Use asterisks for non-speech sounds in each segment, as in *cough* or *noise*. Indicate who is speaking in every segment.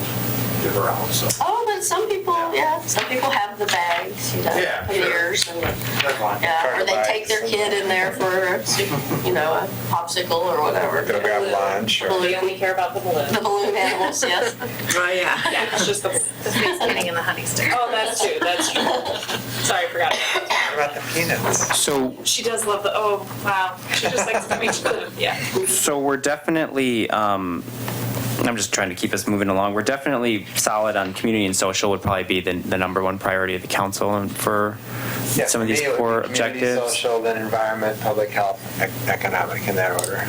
Speaker 1: to her out, so
Speaker 2: Oh, but some people, yeah, some people have the bags, you know,
Speaker 1: Yeah,
Speaker 2: for
Speaker 1: sure.
Speaker 2: years and,
Speaker 1: that's fine.
Speaker 2: yeah, or they
Speaker 3: Carter
Speaker 2: take their
Speaker 3: bags.
Speaker 2: kid in there for, you know, a popsicle or whatever.
Speaker 3: Go grab lunch or-
Speaker 4: We
Speaker 2: Balloon-
Speaker 4: only care about the
Speaker 2: The
Speaker 4: balloon.
Speaker 2: balloon animals, yes.
Speaker 5: Oh, yeah.
Speaker 4: *laughs* Yeah, it's just the balloon.
Speaker 6: The Thanksgiving and the honey stick.
Speaker 4: Oh, that's true, that's true. Sorry, I forgot. about that.
Speaker 3: What about the peanuts?
Speaker 7: So,
Speaker 4: She does love the, oh, wow, she just likes to make food, yeah.
Speaker 7: so we're definitely, um, I'm just trying to keep us moving along. We're definitely solid on community and social would probably be the, the number one priority of the council and for
Speaker 3: Yeah,
Speaker 7: some of
Speaker 3: for
Speaker 7: these
Speaker 3: me, it would
Speaker 7: core
Speaker 3: be community,
Speaker 7: objectives.
Speaker 3: Social, then environment, public health, ec- economic, in that order.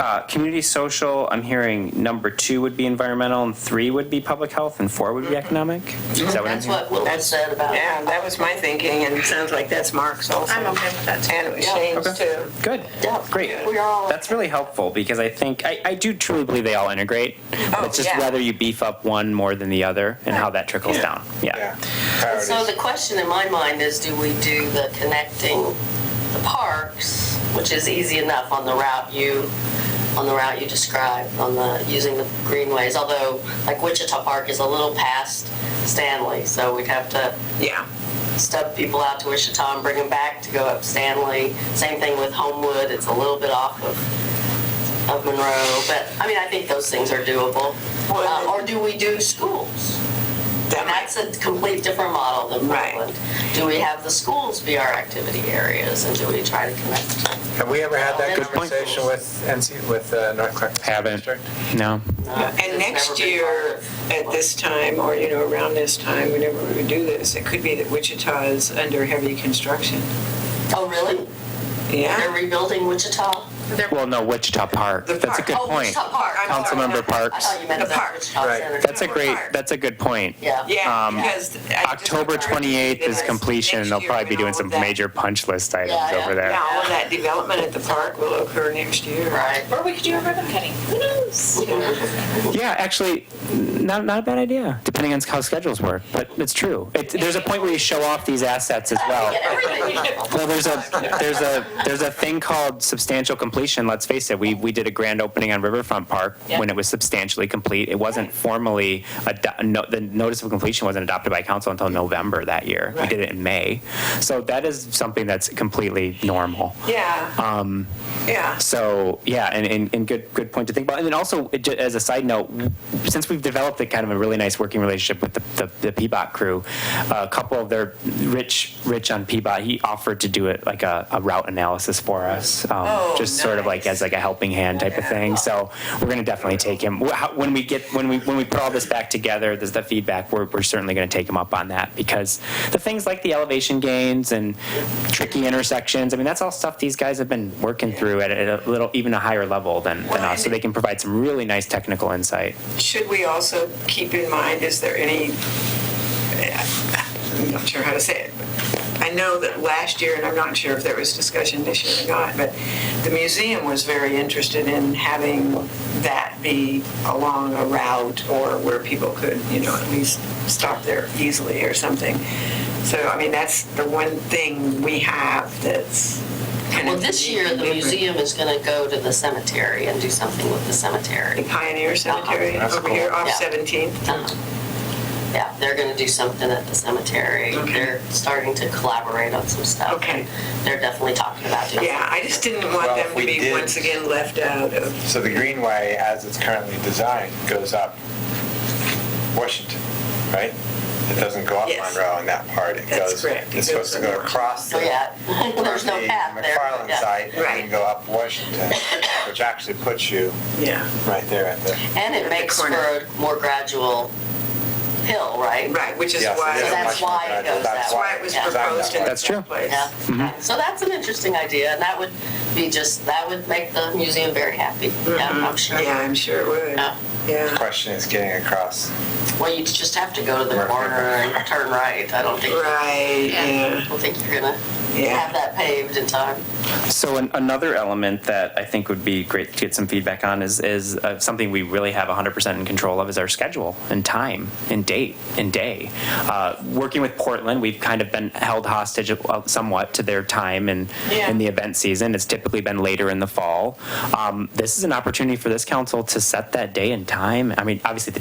Speaker 7: Uh, community social, I'm hearing number two would be environmental and three would be public health and four
Speaker 3: Mm-hmm.
Speaker 7: would be economic? Is that what I'm
Speaker 2: That's
Speaker 7: hearing?
Speaker 2: what Will
Speaker 5: That's-
Speaker 2: said about.
Speaker 5: Yeah, that was my thinking, and it sounds like that's Mark's also.
Speaker 6: I'm okay with that too.
Speaker 5: And it was Shane's
Speaker 7: Okay.
Speaker 5: too.
Speaker 7: Good,
Speaker 2: Yeah,
Speaker 7: great.
Speaker 2: We are all.
Speaker 7: That's really helpful because I think, I, I do truly believe they all integrate.
Speaker 5: Oh,
Speaker 7: It's just
Speaker 5: yeah.
Speaker 7: whether you beef up one more than the other and how that trickles down.
Speaker 3: Yeah.
Speaker 7: Yeah.
Speaker 3: Priorities.
Speaker 2: So the question in my mind is, do we do the connecting the parks, which is easy enough on the route you, on the route you described, on the, using the greenways, although like Wichita Park is a little past Stanley, so we'd have to
Speaker 5: Yeah.
Speaker 2: stub people out to Wichita and bring them back to go up Stanley. Same thing with Homewood, it's a little bit off of, of Monroe, but, I mean, I think those things are doable. Uh, Or do we do schools?
Speaker 5: That might,
Speaker 2: That's a complete different model than
Speaker 5: Right.
Speaker 2: Portland. Do we have the schools be our activity areas and do we try to connect?
Speaker 3: Have we ever had that
Speaker 2: Good point.
Speaker 3: conversation with NC, with uh, North Clark?
Speaker 7: Haven't.
Speaker 3: District?
Speaker 7: No.
Speaker 5: and next year, at this time, or, you know, around this time, whenever we would do this, it could be that Wichita is under heavy construction.
Speaker 2: Oh, really? They're
Speaker 5: Yeah.
Speaker 2: rebuilding Wichita?
Speaker 7: Well, no, Wichita Park.
Speaker 5: The
Speaker 7: That's a
Speaker 5: park.
Speaker 7: good
Speaker 2: Oh,
Speaker 7: point.
Speaker 2: Wichita Park. I'm sorry.
Speaker 7: Councilmember
Speaker 2: I
Speaker 7: Parks.
Speaker 2: thought you meant
Speaker 5: The
Speaker 2: the
Speaker 5: park.
Speaker 2: Wichita
Speaker 3: Right.
Speaker 2: Center.
Speaker 7: That's a great,
Speaker 5: Park.
Speaker 7: that's a good point.
Speaker 2: Yeah.
Speaker 5: Yeah,
Speaker 7: Um,
Speaker 5: because. I just-
Speaker 7: October 28th is completion, and they'll
Speaker 5: Next year
Speaker 7: probably be
Speaker 5: when all
Speaker 7: doing
Speaker 5: of
Speaker 7: some
Speaker 5: that-
Speaker 7: major punch list
Speaker 2: Yeah,
Speaker 7: items
Speaker 2: yeah.
Speaker 7: over there.
Speaker 5: Yeah, all of that development at the park will occur next year.
Speaker 2: Right.
Speaker 4: Or we could do a ribbon cutting, who knows?
Speaker 7: Yeah, actually, not, not a bad idea, depending on how schedules work, but it's true. It, there's a point where you show off these assets as
Speaker 2: Uh,
Speaker 7: well.
Speaker 2: Get everything.
Speaker 7: Well, there's a, there's a, there's a thing called substantial completion, let's face it, we, we did a grand opening on Riverfront Park when it was substantially complete. It wasn't formally, ado- no- the notice of completion wasn't adopted by council until November that year. We did it in May. So that is something that's completely normal.
Speaker 5: Yeah. Um. Yeah.
Speaker 7: So yeah, and, and, and good good point to think about. And then also, it ju- as a side note, since we've developed a kind of a really nice working relationship with the, the, the Peabot crew, a couple of their rich rich on Peabot, he offered to do it like a, a route analysis for us, um,
Speaker 5: Oh,
Speaker 7: just sort of like
Speaker 5: nice.
Speaker 7: as like a helping hand type of thing. So we're gonna definitely take him Wh- how- when we get when we when we put all this back together. There's the feedback. We're, we're certainly gonna take him up on that because the things like the elevation gains and tricky intersections. I mean, that's all stuff these guys have been working through at a at a little, even a higher level than, than us. So they can provide some really nice technical insight.
Speaker 5: Should we also keep in mind, is there any, I'm not sure how to say it, but I know that last year, and I'm not sure if there was discussion this year or not, but the museum was very interested in having that be along a route or where people could, you know, at least stop there easily or something. So, I mean, that's the one thing we have that's kind of.
Speaker 2: Well, this year, the museum is going to go to the cemetery and do something with the
Speaker 5: The
Speaker 2: cemetery.
Speaker 5: Pioneer Cemetery
Speaker 3: That's
Speaker 5: over here
Speaker 3: cool.
Speaker 5: off
Speaker 2: Uh-huh. Yeah.
Speaker 5: 17th.
Speaker 2: Uh-huh. Yeah, they're going to do something at the cemetery.
Speaker 5: Okay.
Speaker 2: They're starting to collaborate on some stuff.
Speaker 5: Okay.
Speaker 2: They're definitely talking about doing.
Speaker 5: Yeah, I just didn't want
Speaker 3: Well,
Speaker 5: them
Speaker 3: if
Speaker 5: to
Speaker 3: we
Speaker 5: be
Speaker 3: did-
Speaker 5: once again left out of,
Speaker 3: So the Greenway, as it's currently designed, goes up Washington, right? It doesn't go up
Speaker 5: Yes.
Speaker 3: Monroe in that part. It
Speaker 5: That's
Speaker 3: goes,
Speaker 5: correct. It
Speaker 3: it's supposed to
Speaker 5: goes
Speaker 3: go
Speaker 5: up.
Speaker 3: across the
Speaker 2: So, Oh, yeah, *laughs* there's no
Speaker 3: the
Speaker 2: path there.
Speaker 3: McFarland
Speaker 2: Yeah.
Speaker 3: site and
Speaker 5: Right.
Speaker 3: then go up Washington, which actually puts you
Speaker 5: yeah,
Speaker 3: right there at the.
Speaker 2: And it
Speaker 5: the
Speaker 2: makes for
Speaker 5: corner.
Speaker 2: a more gradual hill, right?
Speaker 5: right, which is
Speaker 3: Yes, it
Speaker 5: why,
Speaker 3: is
Speaker 2: So that's
Speaker 3: much
Speaker 5: that's
Speaker 3: more
Speaker 2: why it
Speaker 3: gradual.
Speaker 2: goes
Speaker 3: That's
Speaker 2: that
Speaker 5: why it was
Speaker 3: it's designed
Speaker 5: proposed
Speaker 3: that
Speaker 5: in
Speaker 3: way.
Speaker 5: the
Speaker 7: That's true.
Speaker 5: first place.
Speaker 2: Yeah, yeah.
Speaker 3: Mm-hmm.
Speaker 2: so that's an interesting idea, and that would be just, that would make the museum very happy. Yeah, I'm sure.
Speaker 5: Mm-hmm. Yeah, I'm sure it would,
Speaker 2: Yeah.
Speaker 3: The
Speaker 5: yeah,
Speaker 3: question is getting across.
Speaker 2: Well, you just have to go to the
Speaker 3: Right.
Speaker 2: corner and turn right. I don't think, I
Speaker 5: right, yeah,
Speaker 2: don't think you're gonna have
Speaker 5: yeah.
Speaker 2: that paved in time.
Speaker 7: So an, another element that I think would be great to get some feedback on is is uh, something we really have 100% in control of is our schedule and time and date and day. Uh, working with Portland, we've kind of been held hostage uh, somewhat to their time and
Speaker 5: Yeah.
Speaker 7: in the event season. It's typically been later in the fall. Um, this is an opportunity for this council to set that day and time. I mean, obviously the